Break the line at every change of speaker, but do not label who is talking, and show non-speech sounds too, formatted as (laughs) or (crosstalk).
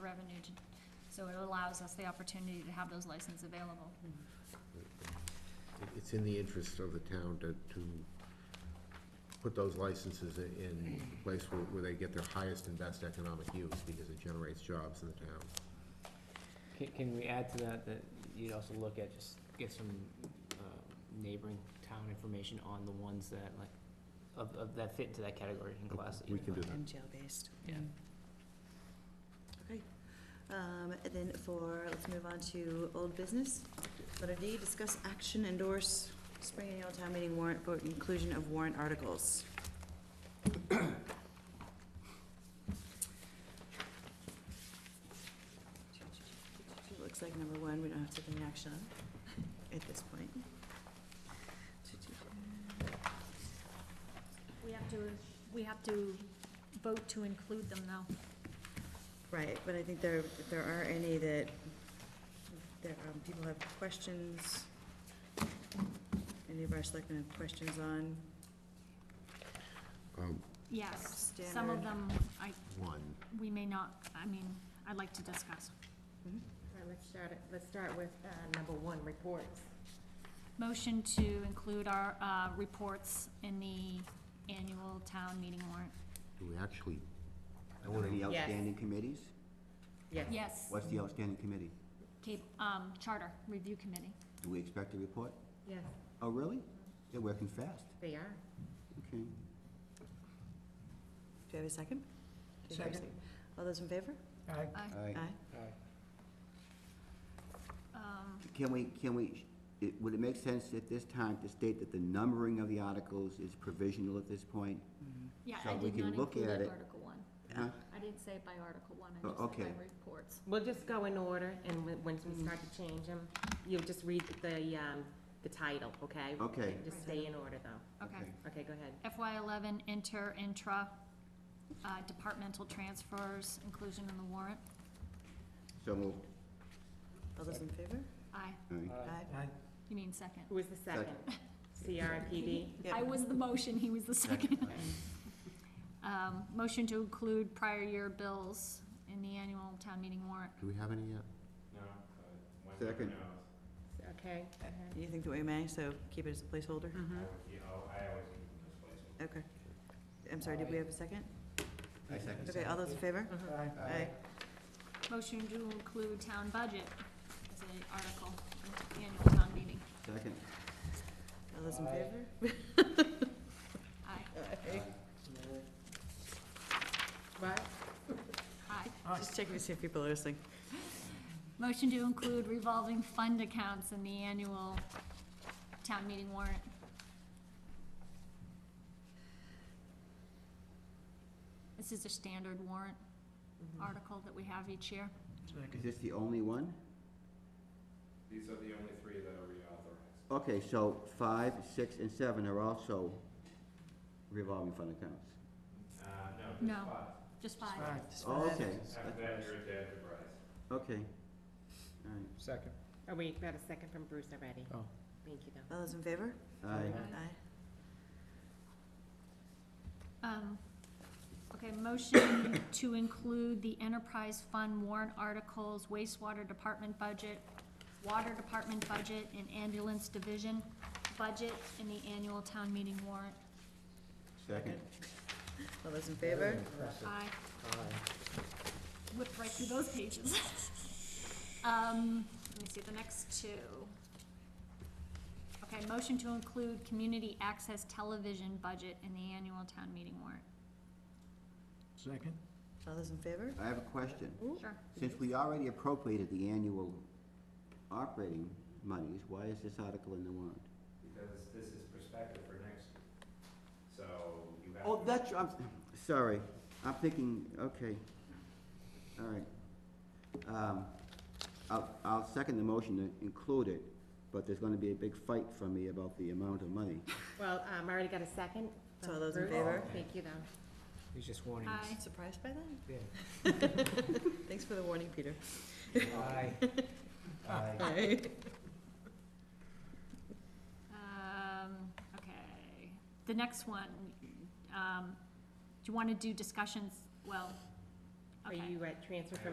revenue to, so it allows us the opportunity to have those licenses available.
It- It's in the interest of the town to, to put those licenses i- in a place where, where they get their highest and best economic use, because it generates jobs in the town.
Can, can we add to that, that you'd also look at, just get some, uh, neighboring town information on the ones that like, of, of, that fit into that category in class? that you
We can do that.
define?
And jail-based. Mm-hmm.
Yeah.
Okay, um, and then for, let's move on to old business. Letter D, discuss action endorse spring annual town meeting warrant for inclusion of warrant articles. (coughs) Looks like number one, we don't have to take any action on at this point.
We have to, we have to vote to include them though.
Right, but I think there, if there are any that, that um, people have questions, any of our selectmen have questions on,
Um,
Yes, some of
Standard.
them, I,
One,
we may not, I mean, I'd like to discuss.
Mm-hmm. All right, let's start, it- let's start with uh, number one, reports.
Motion to include our, uh, reports in the annual town meeting warrant.
do we actually,
Are there any
Yes.
outstanding committees?
Yes.
Yes,
What's the outstanding committee?
Cape, um, charter review committee.
Do we expect a report?
Yes,
Oh, really? They're working fast.
they are.
Okay.
do you have a second? Do you have a
Second.
All those in favor?
I,
All
Uh,
right.
Aye.
um,
Can we, can we, it- would it make sense at this time to state that the numbering of the articles is provisional at this point?
yeah,
So
I
we
did
can
not
look
include
at
it
it.
article one.
Huh?
I didn't say it by article one, I
Oh,
just said
okay.
by reports.
We'll just go in order, and when- once we start
Mm-hmm.
to change them, you'll just read the, um, the title, okay?
Okay.
Just stay in order, though.
Okay.
Okay, go ahead.
FY eleven, inter, intra, uh, departmental transfers, inclusion in the warrant.
So moved.
All those in favor?
I,
All right.
Aye.
you mean second.
Who was the second? CRPD?
Yeah.
I was the motion, he was the second. (laughs) Um, motion to include prior year bills in the annual town meeting warrant.
do we have any uh, yet?
Second.
Okay. go ahead.
You think that we may, so keep it as a placeholder?
Mhm.
Okay. I'm sorry, did we have a second?
I second.
Okay, all those in favor?
Mhm.
Aye.
Motion to include town budget as an article in the annual town meeting.
Second.
All those in favor?
Aye,
What?
aye.
Just checking to see if people are listening.
Motion to include revolving fund accounts in the annual town meeting warrant. This is a standard warrant
Mm-hmm.
article that we have each year.
Is this the only one?
These are the only three that are reauthorized.
Okay, so five, six, and seven are also revolving fund accounts.
Uh, no,
No.
just five.
Just five.
Oh, okay.
After that, you're into enterprise.
Okay. All right.
Second.
Oh, we got a second from Bruce already.
Oh.
Thank you, though.
All those in favor?
Aye.
Aye.
Um, okay, motion (coughs) to include the enterprise fund warrant articles, wastewater department budget, water department budget, and ambulance division budget in the annual town meeting warrant.
Second.
All those in favor?
I Whipped right through those pages. (laughs) Um, let me see, the next two. Okay, motion to include community access television budget in the annual town meeting warrant.
Second.
All those in favor?
I have a question.
Sure.
Since we already appropriated the annual operating monies, why is this article in the warrant?
Because this is prospective for next year. So you have.
Oh,
to-
that's, I'm, sorry, I'm thinking, okay, all right. Um, I'll, I'll second the motion to include it, but there's gonna be a big fight from me about the amount of money.
Well, um, I already got a second.
So
from
all those in
Bruce.
favor?
Thank you, though.
He's just warning us.
Aye.
Surprised by that?
Yeah.
(laughs) Thanks for the warning, Peter.
Aye. Aye.
Aye.
Um, okay, the next one, um, do you wanna do discussions, well,
Are
okay.
you at transfer from